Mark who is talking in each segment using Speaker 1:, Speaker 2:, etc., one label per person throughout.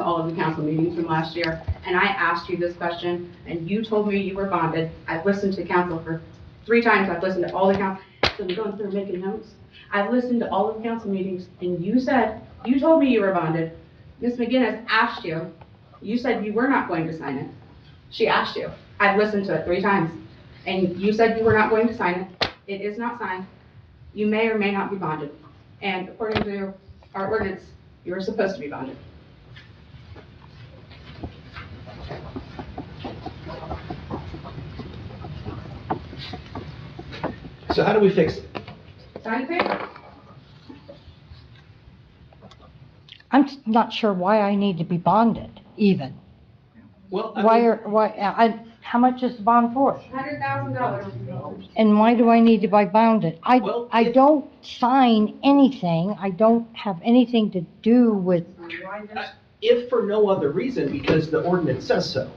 Speaker 1: all of the council meetings from last year, and I asked you this question, and you told me you were bonded. I've listened to council for three times, I've listened to all the council, so I'm going through making notes. I've listened to all of the council meetings, and you said, you told me you were bonded. Ms. McGinnis asked you, you said you were not going to sign it. She asked you. I've listened to it three times, and you said you were not going to sign it. It is not signed. You may or may not be bonded, and according to our ordinance, you are supposed to be bonded.
Speaker 2: So how do we fix it?
Speaker 1: Sign the paper.
Speaker 3: I'm s- not sure why I need to be bonded even.
Speaker 2: Well, I
Speaker 3: Why
Speaker 2: mean,
Speaker 3: are, why, uh, I, how much is the bond for?
Speaker 1: Hundred thousand dollars.
Speaker 3: And why do I need to be bonded? I,
Speaker 2: Well,
Speaker 3: I
Speaker 2: if-
Speaker 3: don't sign anything. I don't have anything to do with,
Speaker 2: if for no other reason, because the ordinance says so.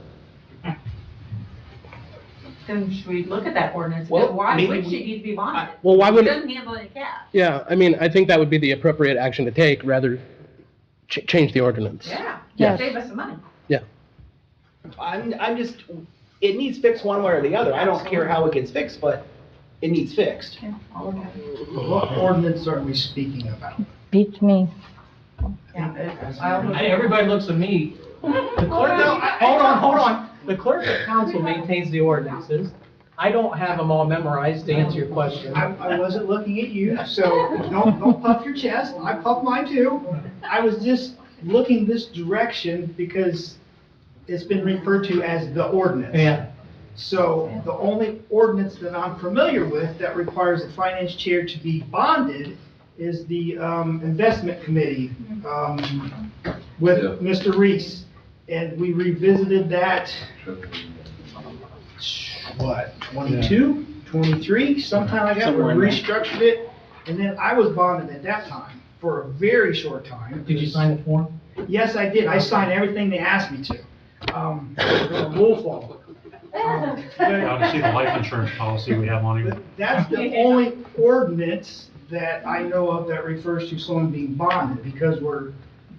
Speaker 4: Then should we look at that ordinance?
Speaker 2: Well,
Speaker 4: And Why
Speaker 2: maybe
Speaker 4: would
Speaker 2: we-
Speaker 4: she need to be bonded?
Speaker 5: Well, why
Speaker 4: She
Speaker 5: would,
Speaker 4: doesn't handle any cash.
Speaker 5: yeah, I mean, I think that would be the appropriate action to take, rather ch- change the ordinance.
Speaker 4: Yeah.
Speaker 3: Yes.
Speaker 4: Save us some money.
Speaker 2: I'm, I'm just, it needs fixed one way or the other. I don't care how it gets fixed, but it needs fixed.
Speaker 6: What ordinance are we speaking about?
Speaker 3: beats me.
Speaker 7: Hey, Everybody looks at me. The clerk, no, I- hold on, hold on. The clerk of council maintains the ordinances. I don't have them all memorized to answer your question.
Speaker 6: I, I wasn't looking at you, so don't, don't puff your chest. I puff mine too. I was just looking this direction because it's been referred to as the ordinance. So the only ordinance that I'm familiar with that requires the finance chair to be bonded is the um, investment committee um, with
Speaker 8: Yeah.
Speaker 6: Mr. Reese. And we revisited that, what, 22, 23, sometime like that. We
Speaker 7: Somewhere in there.
Speaker 6: restructured it. And then I was bonded at that time for a very short time.
Speaker 7: Did you sign the form?
Speaker 6: Yes, I did. I signed everything they asked me to. Um, the Rule follow. Um, but-
Speaker 9: Now to see the life insurance policy we have on here.
Speaker 6: But that's the only ordinance that I know of that refers to someone being bonded, because we're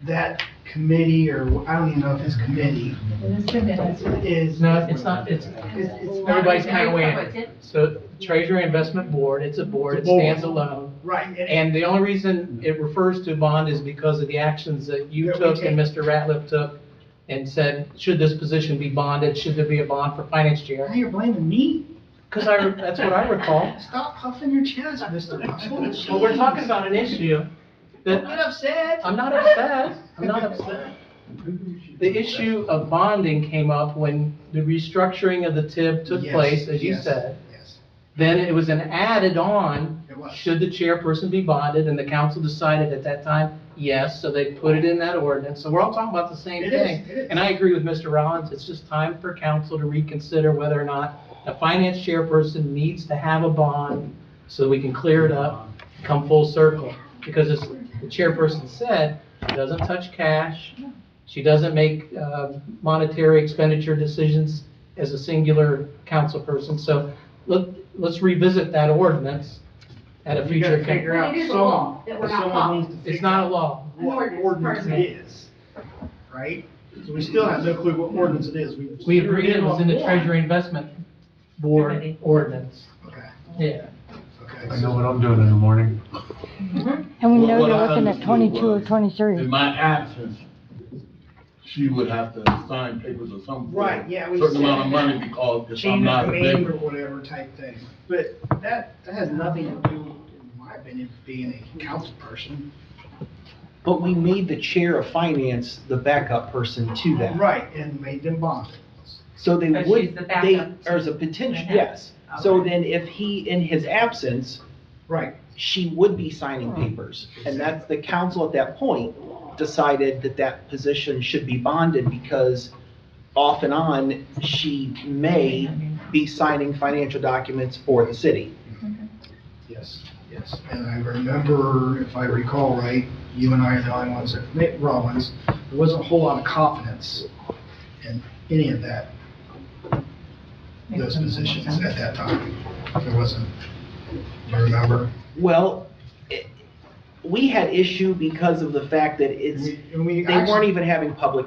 Speaker 6: that committee, or I don't even know if it's committee, is.
Speaker 7: No, it's not, it's,
Speaker 6: It's, it's not,
Speaker 7: everybody's kind of weighing. in. So Treasury Investment Board, it's a board, it
Speaker 6: It's a board.
Speaker 7: stands alone.
Speaker 6: right, and-
Speaker 7: And the only reason it refers to bond is because of the actions that you
Speaker 6: That we
Speaker 7: took and Mr. Ratliff took and said, should this position be bonded? Should there be a bond for finance
Speaker 6: now
Speaker 7: chair?
Speaker 6: you're blaming me?
Speaker 7: Because I, that's what I recall.
Speaker 6: Stop puffing your chest, Mr. Russell.
Speaker 7: Well, we're talking about an issue
Speaker 6: Don't
Speaker 7: that,
Speaker 6: get upset.
Speaker 7: I'm not upset, I'm not upset. The issue of bonding came up when the restructuring of the TIB took
Speaker 6: Yes,
Speaker 7: place, as you
Speaker 6: yes,
Speaker 7: said.
Speaker 6: Yes,
Speaker 7: Then it was an added on,
Speaker 6: it was.
Speaker 7: should the chairperson be bonded, and the council decided at that time, yes, so they put it in that ordinance, so we're all talking about the same
Speaker 6: It
Speaker 7: thing.
Speaker 6: is, it is.
Speaker 7: And I agree with Mr. Rollins, it's just time for council to reconsider whether or not a finance chairperson needs to have a bond so we can clear it up, come full circle. Because as the chairperson said, she doesn't touch cash, she doesn't make uh, monetary expenditure decisions as a singular council person. So let, let's revisit that ordinance at a
Speaker 6: You gotta
Speaker 7: future.
Speaker 6: figure
Speaker 7: coun-
Speaker 6: out
Speaker 1: It is a law
Speaker 6: someone,
Speaker 1: that we're
Speaker 6: if
Speaker 1: not
Speaker 6: someone
Speaker 1: following.
Speaker 6: needs to figure
Speaker 7: It's not a law.
Speaker 6: what
Speaker 1: An ordinance,
Speaker 6: ordinance
Speaker 1: pardon
Speaker 6: it is, right? So we still have no clue what ordinance it is.
Speaker 7: We agreed it was in the
Speaker 6: treasury.
Speaker 7: Treasury Investment Board ordinance.
Speaker 6: Okay,
Speaker 7: Yeah.
Speaker 6: okay.
Speaker 9: I know what I'm doing in the morning.
Speaker 3: And we know
Speaker 8: Well, what uh,
Speaker 3: you're
Speaker 8: I
Speaker 3: looking at
Speaker 8: understood
Speaker 3: twenty-two or
Speaker 8: was- In
Speaker 3: twenty-three.
Speaker 8: my absence, she would have to sign papers or something.
Speaker 6: Right, yeah, we
Speaker 8: Certain
Speaker 6: said
Speaker 8: amount of
Speaker 6: that.
Speaker 8: money because if I'm
Speaker 6: change of
Speaker 8: not
Speaker 6: name or
Speaker 8: there.
Speaker 6: whatever type thing. But that, that has nothing to do, in my opinion, with being a council person.
Speaker 2: But we made the chair of finance the backup person to that.
Speaker 6: Right, and made them bond.
Speaker 2: So they
Speaker 4: So she's
Speaker 2: would,
Speaker 4: the
Speaker 2: they,
Speaker 4: backup to-
Speaker 2: as a potential,
Speaker 4: Okay.
Speaker 2: yes. So
Speaker 4: Okay.
Speaker 2: then if he, in his absence,
Speaker 6: Right.
Speaker 2: she would be signing papers. And that's, the council at that point decided that that position should be bonded because off and on, she may be signing financial documents for the city.
Speaker 6: Yes, yes. And I remember, if I recall right, you and I are the only ones that, Mick Rollins, there wasn't a whole lot of confidence in any of that, those positions at that time. There wasn't, you remember?
Speaker 2: Well, it- we had issue because of the fact that it's,
Speaker 6: And we- and we
Speaker 2: they
Speaker 6: actually-
Speaker 2: weren't even having public